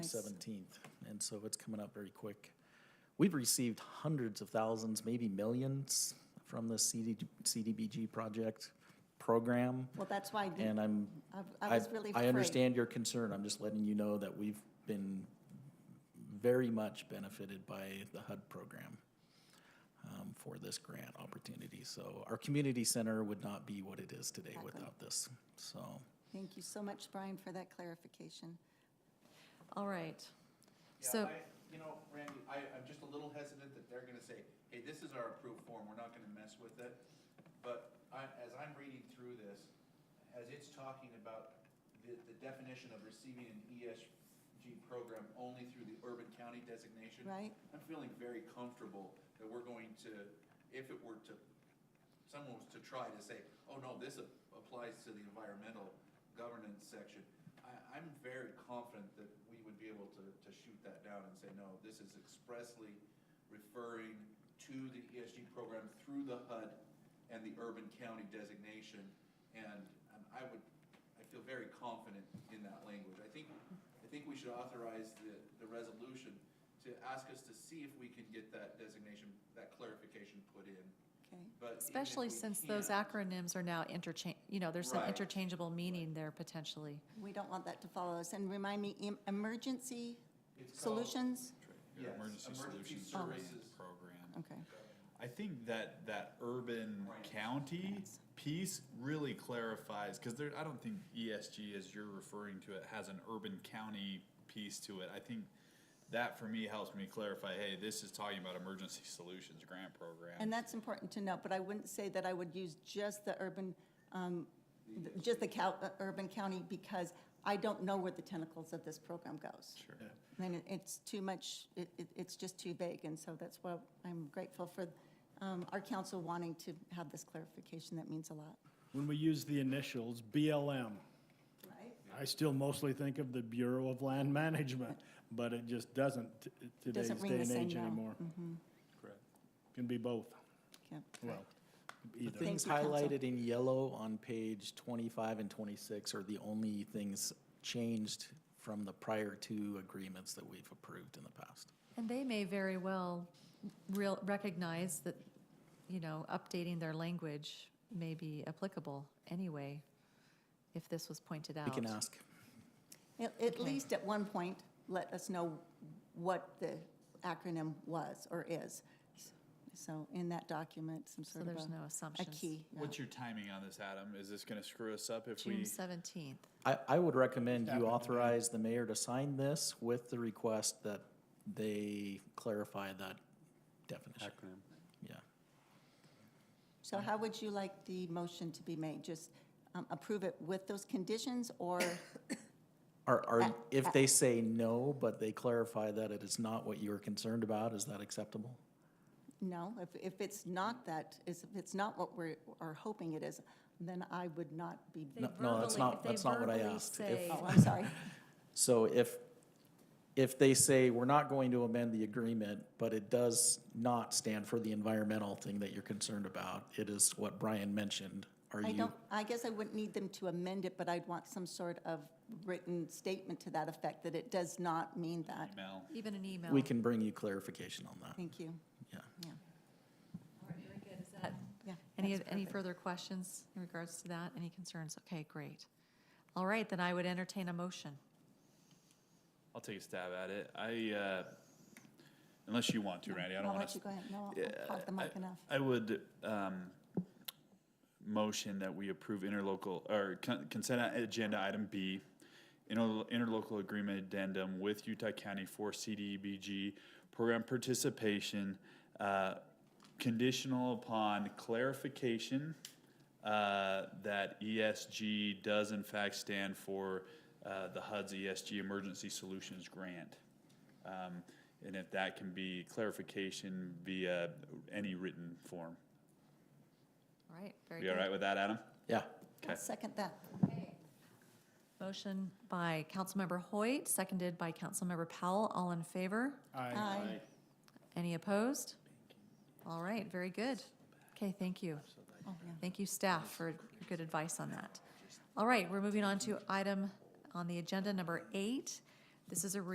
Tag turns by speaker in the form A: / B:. A: Yes.
B: seventeenth, and so it's coming up very quick. We've received hundreds of thousands, maybe millions, from the CD, CDBG project program,
A: Well, that's why, the-
B: and I'm,
A: I- I
B: I,
A: was really afraid.
B: I understand your concern, I'm just letting you know that we've been very much benefited by the HUD program um, for this grant opportunity, so our community center would not be what it is today
A: Exactly.
B: without this, so.
A: Thank you so much, Brian, for that clarification.
C: All right.
D: Yeah,
C: So,
D: I, you know, Randy, I, I'm just a little hesitant that they're gonna say, hey, this is our approved form, we're not gonna mess with it. But I, as I'm reading through this, as it's talking about the, the definition of receiving an ESG program only through the urban county designation.
A: Right.
D: I'm feeling very comfortable that we're going to, if it were to, someone was to try to say, oh no, this a- applies to the environmental governance section. I, I'm very confident that we would be able to, to shoot that down and say, no, this is expressly referring to the ESG program through the HUD and the urban county designation. And, and I would, I feel very confident in that language. I think, I think we should authorize the, the resolution to ask us to see if we can get that designation, that clarification put in,
A: Okay,
D: but. even if
C: especially
D: we
C: since those
D: can't-
C: acronyms are now interchange, you know, there's some
D: Right.
C: interchangeable meaning there potentially.
A: we don't want that to follow us. And remind me, em- emergency
D: It's called-
A: solutions?
D: Yes,
E: Your Emergency
D: emergency
E: Solutions Grant
D: services.
E: Program.
A: Okay,
E: I think that, that urban
D: Right.
E: county
A: Yes.
E: piece really clarifies, because there, I don't think ESG, as you're referring to it, has an urban county piece to it. I think that for me helps me clarify, hey, this is talking about Emergency Solutions Grant Program.
A: and that's important to note, but I wouldn't say that I would use just the urban, um, th- just the cou- uh, urban county, because I don't know where the tentacles of this program goes.
E: Sure.
A: Then it- it's too much, it, it- it's just too vague, and so that's why I'm grateful for um, our council wanting to have this clarification, that means a lot.
F: When we use the initials, BLM,
A: Right?
F: I still mostly think of the Bureau of Land Management, but it just doesn't t- today's
A: Doesn't
F: day
A: ring the
F: and
A: same
F: age
A: bell. Mm-hmm.
F: anymore.
E: Correct.
F: Can be both,
A: Okay.
F: well,
B: The
F: either.
B: things
A: you, Council.
B: highlighted in yellow on page twenty-five and twenty-six are the only things changed from the prior two agreements that we've approved in the past.
C: And they may very well real, recognize that, you know, updating their language may be applicable anyway, if this was pointed out.
B: We can ask.
A: At, at
C: Okay.
A: least at one point, let us know what the acronym was or is. So in that document, some
C: So
A: sort of
C: there's
A: a,
C: no
A: a
C: assumptions.
A: key. yeah.
E: What's your timing on this, Adam? Is this gonna screw us up if
C: June
E: we?
C: seventeenth.
B: I, I would recommend
F: Happened
B: you
F: to me.
B: authorize the mayor to sign this with the request that they clarify that definition. Yeah.
A: So how would you like the motion to be made? Just um, approve it with those conditions or,
B: Are,
A: Uh,
B: are,
A: uh.
B: if they say no, but they clarify that it is not what you're concerned about, is that acceptable?
A: no? If, if it's not that, is, if it's not what we're, are hoping it is, then I would not be,
C: They
B: No, no, that's
C: verbally-
B: not,
C: they
B: that's not what I
C: verbally
B: asked. If-
C: say-
A: oh, I'm sorry.
B: So if, if they say, we're not going to amend the agreement, but it does not stand for the environmental thing that you're concerned about, it is what Brian mentioned, are
A: I
B: you?
A: don't, I guess I wouldn't need them to amend it, but I'd want some sort of written statement to that effect, that it does not mean that.
E: Email.
C: Even an email.
B: We can bring you clarification on that,
A: Thank you.
B: yeah.
A: Yeah. Yeah,
C: Any,
A: that's
C: any
A: perfect.
C: further questions in regards to that? Any concerns? Okay, great. All right, then I would entertain a motion.
E: I'll take a stab at it. I, uh, unless you want to, Randy, I don't
A: I'll
E: wanna.
A: let you go ahead. No, I'll-
E: Yeah,
A: I'll hog the mic
E: I-
A: enough.
E: I would um, motion that we approve interlocal, or con- consent agenda item B, inter- interlocal agreement addendum with Utah County for CDBG program participation, uh, conditional upon clarification uh, that ESG does in fact stand for uh, the HUD's ESG Emergency Solutions Grant. Um, And if that can be clarification via any written form.
C: All right, very
E: You
C: good.
E: all right with that, Adam?
B: Yeah,
A: I'll second that.
C: Motion by Councilmember Hoyt, seconded by Councilmember Powell. All in favor?
A: Aye.
C: Any opposed? All right, very good. Okay, thank you.
A: Oh, yeah.
C: Thank you, staff, for your good advice on that. All right, we're moving on to item on the agenda number eight. This is a